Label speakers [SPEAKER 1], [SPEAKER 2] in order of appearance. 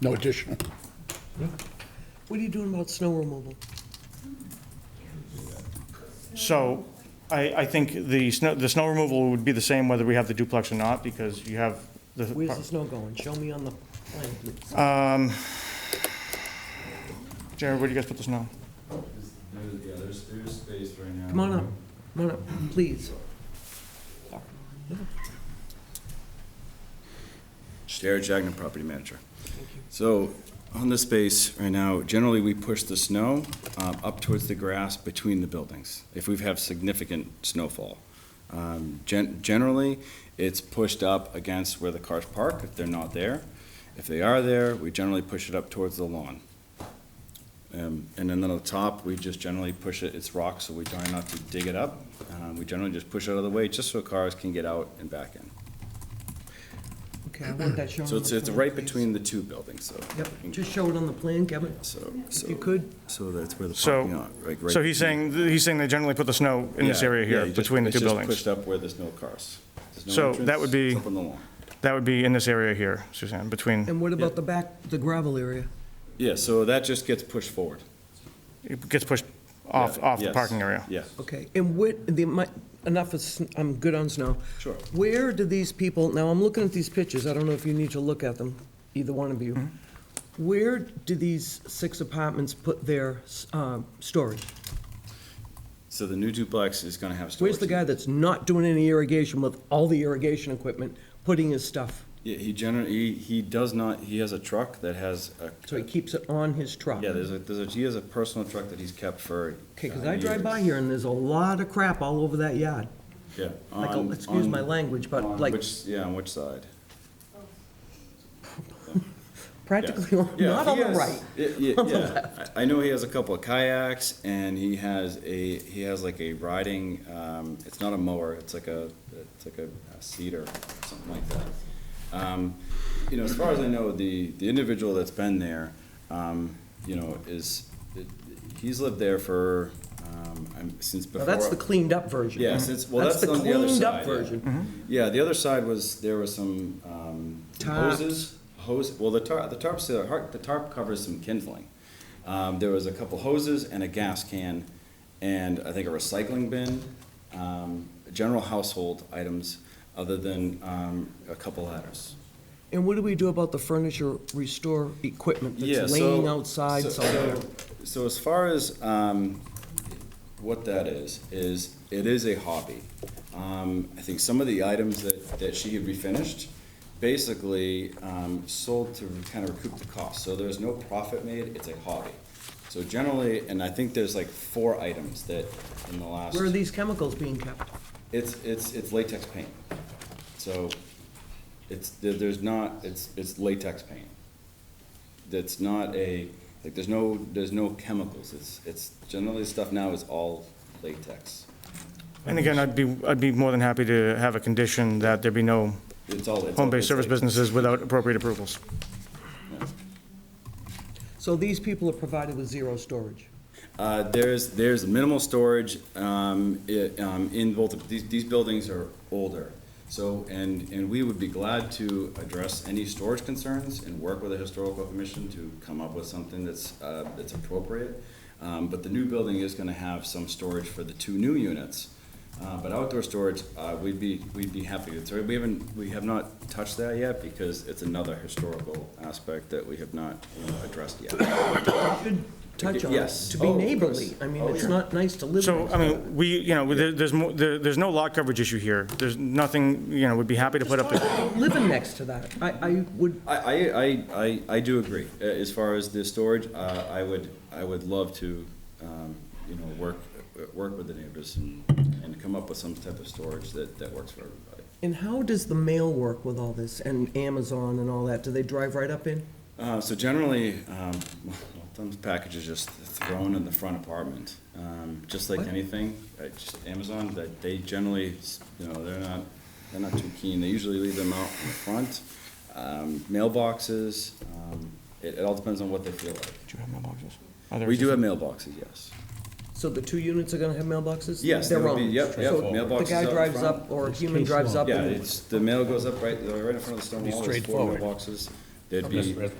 [SPEAKER 1] No additional.
[SPEAKER 2] What are you doing about snow removal?
[SPEAKER 3] So I, I think the snow, the snow removal would be the same whether we have the duplex or not, because you have the.
[SPEAKER 2] Where's the snow going? Show me on the plan, please.
[SPEAKER 3] Jared, where do you guys put the snow?
[SPEAKER 4] There's, yeah, there's, there's space right now.
[SPEAKER 2] Come on up, come on up, please.
[SPEAKER 4] Jared Jagna, property manager. So on this space right now, generally, we push the snow um, up towards the grass between the buildings if we've had significant snowfall. Um, gen- Generally, it's pushed up against where the cars park if they're not there. If they are there, we generally push it up towards the lawn. Um, And then on the top, we just generally push it, it's rock, so we try not to dig it up. Um, We generally just push it out of the way just so cars can get out and back in.
[SPEAKER 2] Okay, I want that shown on
[SPEAKER 4] So
[SPEAKER 2] the
[SPEAKER 4] it's, it's
[SPEAKER 2] plan,
[SPEAKER 4] right
[SPEAKER 2] please.
[SPEAKER 4] between the two buildings, so.
[SPEAKER 2] Yep, just show it on the plan, Kevin,
[SPEAKER 4] So,
[SPEAKER 2] if
[SPEAKER 4] so.
[SPEAKER 2] you could.
[SPEAKER 4] So that's where the parking
[SPEAKER 3] So,
[SPEAKER 4] lot, like, right.
[SPEAKER 3] so he's saying, he's saying they generally put the snow in this
[SPEAKER 4] Yeah,
[SPEAKER 3] area
[SPEAKER 4] yeah,
[SPEAKER 3] here,
[SPEAKER 4] you just-
[SPEAKER 3] between the two
[SPEAKER 4] It's just
[SPEAKER 3] buildings.
[SPEAKER 4] pushed up where there's no cars. There's no
[SPEAKER 3] So
[SPEAKER 4] entrance,
[SPEAKER 3] that would be-
[SPEAKER 4] it's up on the lawn.
[SPEAKER 3] That would be in this area here, Suzanne, between,
[SPEAKER 2] And what about the back, the gravel area?
[SPEAKER 4] Yeah, so that just gets pushed forward.
[SPEAKER 3] it gets pushed off,
[SPEAKER 4] Yeah,
[SPEAKER 3] off the
[SPEAKER 4] yes,
[SPEAKER 3] parking area.
[SPEAKER 4] Yeah.
[SPEAKER 2] Okay, and what, the, my, enough is, I'm good on snow.
[SPEAKER 4] Sure.
[SPEAKER 2] Where do these people, now I'm looking at these pictures, I don't know if you need to look at them, either one of you.
[SPEAKER 4] Mm-hmm.
[SPEAKER 2] Where do these six apartments put their, um, storage?
[SPEAKER 4] So the new duplex is gonna have storage.
[SPEAKER 2] Where's the guy that's not doing any irrigation with all the irrigation equipment, putting his stuff,
[SPEAKER 4] Yeah, he generally, he, he does not, he has a truck that has a.
[SPEAKER 2] so he keeps it on his truck?
[SPEAKER 4] Yeah, there's a, there's a, he has a personal truck that he's kept for.
[SPEAKER 2] Okay, because
[SPEAKER 4] uh,
[SPEAKER 2] I drive
[SPEAKER 4] years.
[SPEAKER 2] by here and there's a lot of crap all over that yard.
[SPEAKER 4] Yeah.
[SPEAKER 2] Like, a-
[SPEAKER 4] on-
[SPEAKER 2] excuse
[SPEAKER 4] on-
[SPEAKER 2] my language,
[SPEAKER 4] on
[SPEAKER 2] but like,
[SPEAKER 4] which- Yeah, on which side?
[SPEAKER 2] practically, on-
[SPEAKER 4] Yeah,
[SPEAKER 2] not
[SPEAKER 4] he
[SPEAKER 2] on the
[SPEAKER 4] has-
[SPEAKER 2] right.
[SPEAKER 4] yeah, yeah, yeah. I I know he has a couple of kayaks and he has a, he has like a riding, um, it's not a mower, it's like a, it's like a a cedar, something like that. Um, you know, as far as I know, the, the individual that's been there, um, you know, is, he's lived there for, um, I'm- since
[SPEAKER 2] Now,
[SPEAKER 4] before.
[SPEAKER 2] that's the cleaned up version.
[SPEAKER 4] Yeah, since, well, that's
[SPEAKER 2] the
[SPEAKER 4] on the other side.
[SPEAKER 2] cleaned up
[SPEAKER 4] yeah.
[SPEAKER 2] version.
[SPEAKER 4] Yeah, the other side was, there was some, um,
[SPEAKER 2] Tarps.
[SPEAKER 4] hoses, hose, well, the tarp, the tarp's, the har- the tarp covers some kindling. Um, there was a couple hoses and a gas can, and I think a recycling bin, um, general household items, other than, um, a couple ladders.
[SPEAKER 2] And what do we do about the furniture restore equipment
[SPEAKER 4] Yeah,
[SPEAKER 2] that's
[SPEAKER 4] so-
[SPEAKER 2] laying outside
[SPEAKER 4] so-
[SPEAKER 2] somewhere?
[SPEAKER 4] So as far as, um, what that is, is it is a hobby. Um, I think some of the items that, that she had refinished, basically, um, sold to kind of recoup the cost. So there's no profit made, it's a hobby. So generally, and I think there's like four items that in the last.
[SPEAKER 2] Where are these chemicals being kept?
[SPEAKER 4] It's, it's, it's latex paint. So it's, there- there's not, it's, it's latex paint. That's not a, like, there's no, there's no chemicals. It's, it's generally stuff now is all latex.
[SPEAKER 3] And again, I'd be, I'd be more than happy to have a condition that there be no
[SPEAKER 4] It's all. it's all-
[SPEAKER 3] home-based
[SPEAKER 4] it's
[SPEAKER 3] service
[SPEAKER 4] latex.
[SPEAKER 3] businesses without appropriate approvals.
[SPEAKER 2] So these people are provided with zero storage.
[SPEAKER 4] Uh, there's, there's minimal storage, um, i- um, in both, of- these, these buildings are older. So, and, and we would be glad to address any storage concerns and work with the historical commission to come up with something that's, uh, that's appropriate. Um, but the new building is gonna have some storage for the two new units. Uh, but outdoor storage, uh, we'd be, we'd be happy to, so we haven't, we have not touched that yet because it's another historical aspect that we have not, you know, addressed yet.
[SPEAKER 2] Should touch on it,
[SPEAKER 4] Yes.
[SPEAKER 2] to be
[SPEAKER 4] Oh, of
[SPEAKER 2] neighborly.
[SPEAKER 4] course.
[SPEAKER 2] I mean,
[SPEAKER 4] Oh,
[SPEAKER 2] it's
[SPEAKER 4] yeah.
[SPEAKER 2] not nice to live
[SPEAKER 3] So,
[SPEAKER 2] next
[SPEAKER 3] I mean, we, you know, there- there's more, there- there's no lot coverage issue here. There's nothing, you know, we'd be happy to put up. the-
[SPEAKER 2] Living next to that, I, I would,
[SPEAKER 4] I, I, I, I, I do agree. Uh, As far as the storage, uh, I would, I would love to, um, you know, work, uh, work with the neighbors and, and come up with some type of storage that, that works for everybody.
[SPEAKER 2] and how does the mail work with all this and Amazon and all that? Do they drive right up in?
[SPEAKER 4] Uh, so generally, um, well, some packages just thrown in the front apartment, um, just like
[SPEAKER 2] What?
[SPEAKER 4] anything. Uh, just Amazon, that they generally, s- you know, they're not, they're not too keen. They usually leave them out in the front. Um, mailboxes, um, it, it all depends on what they feel like.
[SPEAKER 3] Do you have mailboxes? Are there
[SPEAKER 4] We do
[SPEAKER 3] existing?
[SPEAKER 4] have mailboxes, yes.
[SPEAKER 2] So the two units are gonna have mailboxes?
[SPEAKER 4] Yes, there
[SPEAKER 2] Their
[SPEAKER 4] will be,
[SPEAKER 2] own.
[SPEAKER 4] yep, yep,
[SPEAKER 2] So
[SPEAKER 4] mailboxes
[SPEAKER 2] The guy
[SPEAKER 4] out
[SPEAKER 2] drives
[SPEAKER 4] front.
[SPEAKER 2] up, or a human drives up.
[SPEAKER 4] Yeah,
[SPEAKER 2] and-
[SPEAKER 4] it's, the mail goes up right, right in front of the stone wall, there's four mailboxes. There'd be